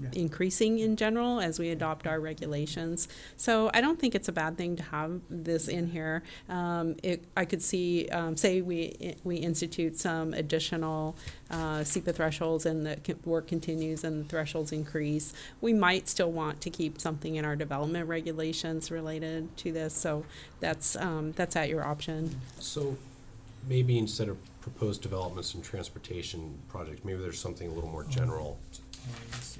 Yeah. increasing in general as we adopt our regulations. So I don't think it's a bad thing to have this in here. Um, it, I could see, um, say we, we institute some additional, uh, SEPA thresholds and the co- work continues and the thresholds increase. We might still want to keep something in our development regulations related to this, so that's, um, that's at your option. So maybe instead of proposed developments and transportation projects, maybe there's something a little more general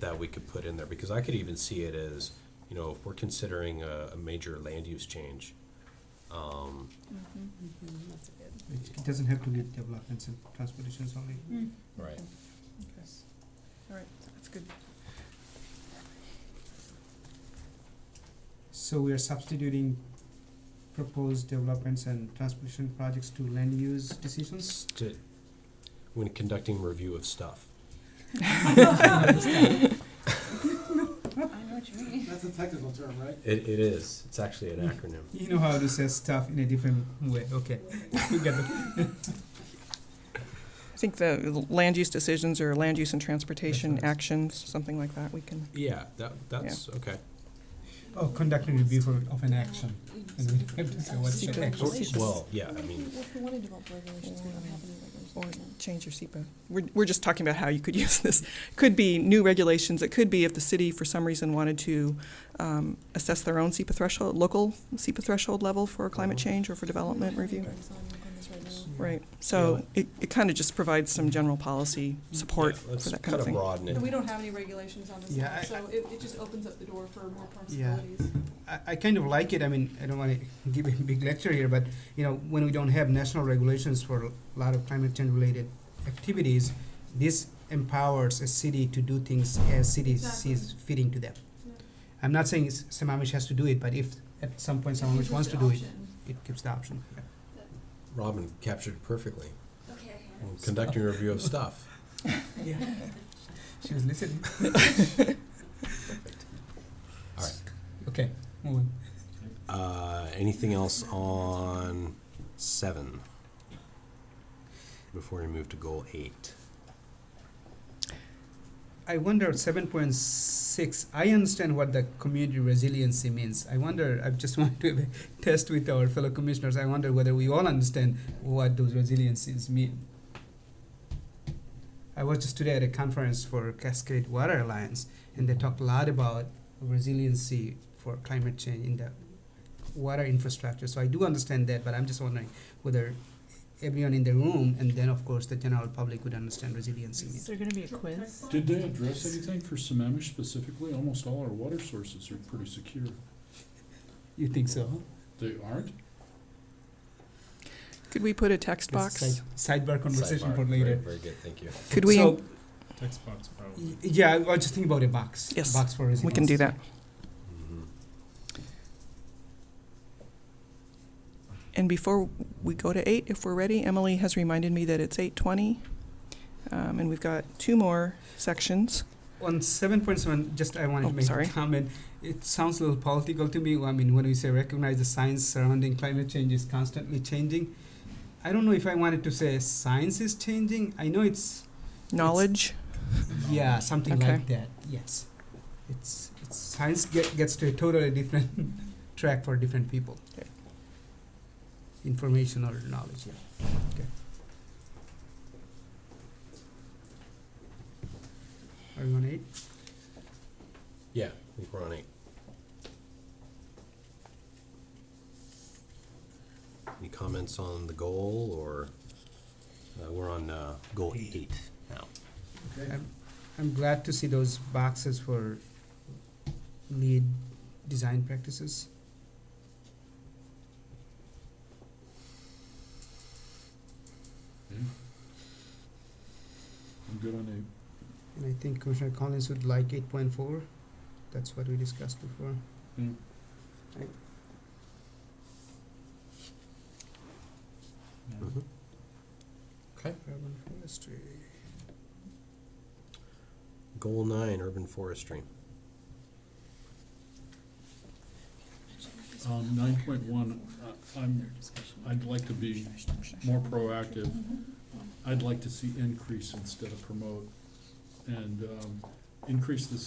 that we could put in there, because I could even see it as, you know, if we're considering a, a major land use change, um, Mm-hmm. It doesn't have to be developments and transportations only. Mm, right, okay. All right, that's good. So we are substituting proposed developments and transportation projects to land use Hmm. decisions? s- to, when conducting review of stuff. I know what you mean. That's a technical term, right? It, it is, it's actually Hmm. an acronym. You know how to say stuff in a different way, okay. We get it. I think the land use decisions or land use and transportation Definitely. actions, something like that, we can, Yeah, that, that's, okay. Oh, conducting review for, of an action. And we have to say what's Secret the action. Or- Well, yeah, I mean, If we want to develop regulations, we don't have any or regulations. right now. change your SEPA. We're, we're just talking about how you could use this. Could be new regulations, it could be if the city for some reason wanted to um, assess their own SEPA threshold, local SEPA threshold level for climate Uh-huh. change or for development Mm-hmm. We don't have review. anything on- on this right now. Right, so it, it kind of just provides some general policy support yeah, for let's that kind of kind of thing. broaden And we it. don't have any regulations on this Yeah, now, I- so it, it just opens up the door for more Yeah. possibilities. I, I kind of like it. I mean, I don't want to give a big lecture here, but you know, when we don't have national regulations for a lot of climate change related activities, this empowers a city to do things as city Exactly. sees fitting to them. Yeah. I'm not saying s- Sammamish has to do it, but if at some point Sammamish wants to do it, it gives the option. Yeah. Robin captured it perfectly, Okay. conducting review of stuff. She was listening. All right. Okay, move on. Uh, anything else on seven? Before we move to goal eight. I wonder 7.6. I understand what the community resiliency means. I wonder, I just want to have a test with our fellow commissioners. I wonder whether we all understand what those resiliencies mean. I was just today at a conference for Cascade Water Alliance, and they talked a lot about resiliency for climate change in the water infrastructure. So I do understand that, but I'm just wondering whether everyone in the room, and then of course the general public, would understand resiliency. means. Is there gonna be a quiz? Did they address anything for Sammamish specifically? Almost all our water sources are pretty secure. You think so? huh? They aren't? Could we put a text box? Side, sidebar conversation Sidebar. for Very- later. Very good, thank you. Could we, So, Text box probably. y- yeah, I was just thinking about a box. Yes, Box for resilience. we can do that. Mhm. And before we go to eight, if we're ready, Emily has reminded me that it's eight twenty. Um, and we've got two more sections. On seven point seven, just I wanted Oh, to make sorry. a comment. It sounds a little political to me. I mean, when we say recognize the science surrounding climate change is constantly changing, I don't know if I wanted to say science is changing. I know it's Knowledge, yeah something Okay. like that. Yes, it's, it's science get, gets to a totally different track for different people. Okay. Information or knowledge. Yeah. Okay. Are you on eight? Yeah, I think we're on eight. Any comments on the goal or, uh, we're on, uh, goal eight now. I'm glad to see those boxes for lead design practices. Hmm? I'm good on eight. And I think Commissioner Collins would like eight point four. That's what we discussed before. Mm. Right. Mhm. Urban forestry. Goal nine, urban forestry. Um, nine point one, uh, I'm, I'd like to be more proactive. I'd like to see increase instead of promote. And, um, increase the